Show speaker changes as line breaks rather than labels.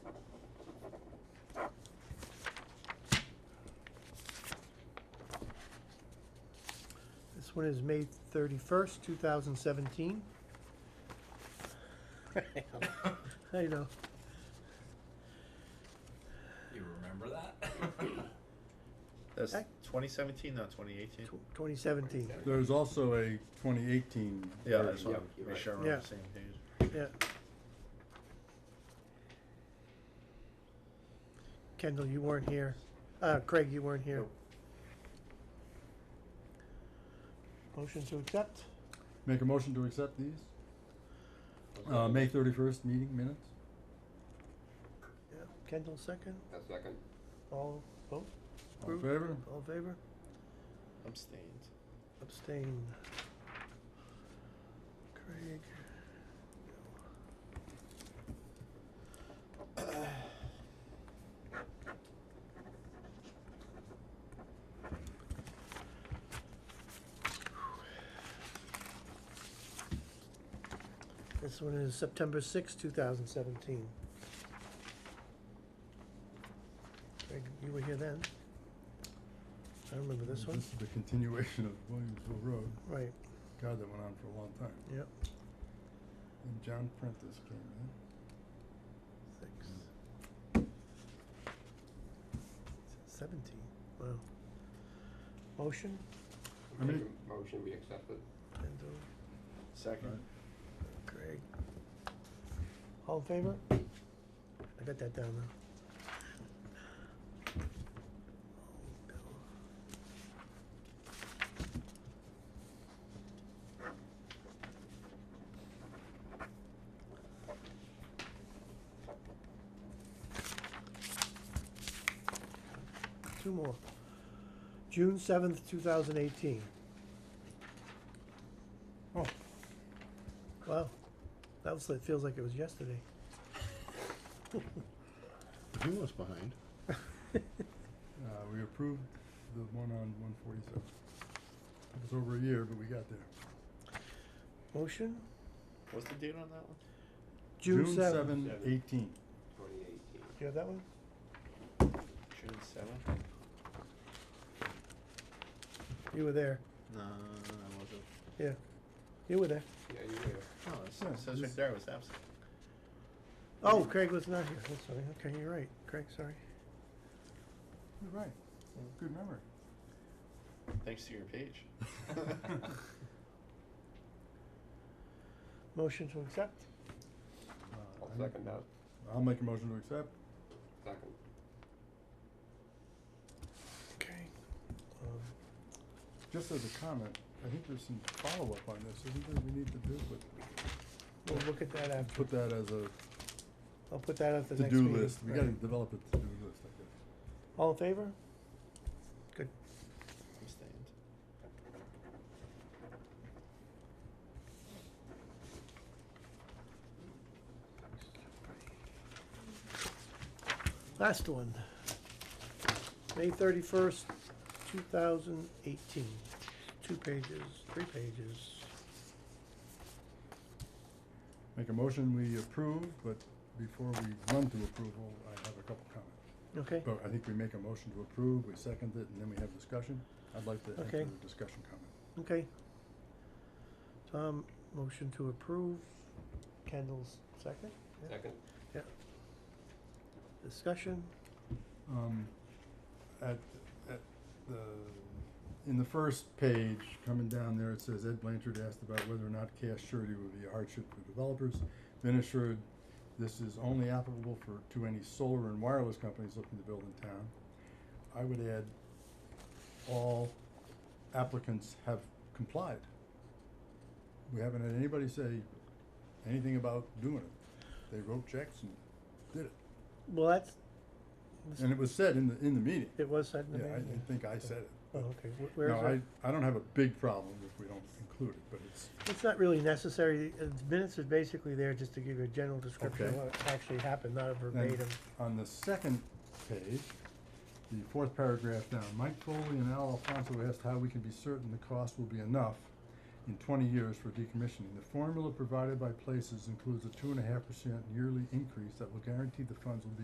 This one is May thirty-first, two thousand seventeen. I know.
You remember that?
That's
Okay.
twenty seventeen, not twenty eighteen?
Twenty seventeen,
There's also a twenty eighteen.
Yeah, that's what,
you're
make
right.
sure we're on
Yeah.
the same page.
yeah. Kendall, you weren't here. Uh, Craig, you weren't here.
Nope.
Motion to accept?
Make a motion to accept these, uh, May thirty-first meeting minutes?
Yeah. Kendall, second.
A second.
All, vote,
All in
Approved.
favor?
all in favor?
Abstained.
Abstain. Craig. This one is September sixth, two thousand seventeen. Craig, you were here then? I remember this one,
This is the continuation of Williamsville Road,
right.
God, that went on for a long time.
Yep.
And John Prentice came in.
Six. Seventeen, wow. Motion,
I mean-
Make a Motion be accepted.
Kendall,
Second.
Craig. All in favor? I got that down now. Two more. June seventh, two thousand eighteen.
Oh,
Wow, that was, it feels like it was yesterday.
He was behind.
uh, we approved the one on one forty-seven. It was over a year, but we got there.
Motion?
What's the date on that one?
seventh.
June seven, eighteen.
Twenty eighteen.
Do you have that one?
June seventh?
You were there,
No, I wasn't.
yeah. You were there.
Yeah, you were.
No,
Yeah,
it says
this-
right there, it was absent.
Oh, Craig was not here, that's right, okay, you're right, Craig, sorry.
You're right. Good memory.
Thanks to your page.
Motion to accept?
Uh,
I'll
I make-
second that.
I'll make a motion to accept.
Second.
Okay. Um,
Just as a comment, I think there's some follow-up on this, isn't there, we need to do, but
We'll look at that after,
put that as a
I'll put that at the next
to-do
meeting.
list, we
right.
gotta develop a to-do list, I guess.
All in favor? Good.
Abstained.
Last one. May thirty-first, two thousand eighteen. Two pages, three pages.
Make a motion, we approve, but before we run to approval, I have a couple comments.
Okay,
But I think we make a motion to approve, we second it, and then we have discussion. I'd like to
Okay.
enter the discussion comment.
okay. Tom, motion to approve. Kendall's second? Yeah.
Second.
Discussion?
Um, at, at the, in the first page, coming down there, it says Ed Blanchard asked about whether or not cash surety would be a hardship for developers. Then assured, this is only applicable for, to any solar and wireless companies looking to build in town. I would add, all applicants have complied. We haven't had anybody say anything about doing it. They wrote checks and did it.
Well, that's,
And it was said in the, in the meeting.
it was said in the
Yeah, I
meeting.
I think I said it.
Oh,
but-
okay, Wh- where
No,
is it?
I, I don't have a big problem if we don't include it, but it's,
It's not really necessary, Uh, the minutes is basically there just to give you a general description of
Okay.
what actually happened, not a verbatim.
then, on the second page, the fourth paragraph down, Mike Foley and Al Alfonso asked how we can be certain the cost will be enough in twenty years for decommissioning. The formula provided by places includes a two and a half percent yearly increase that will guarantee the funds will be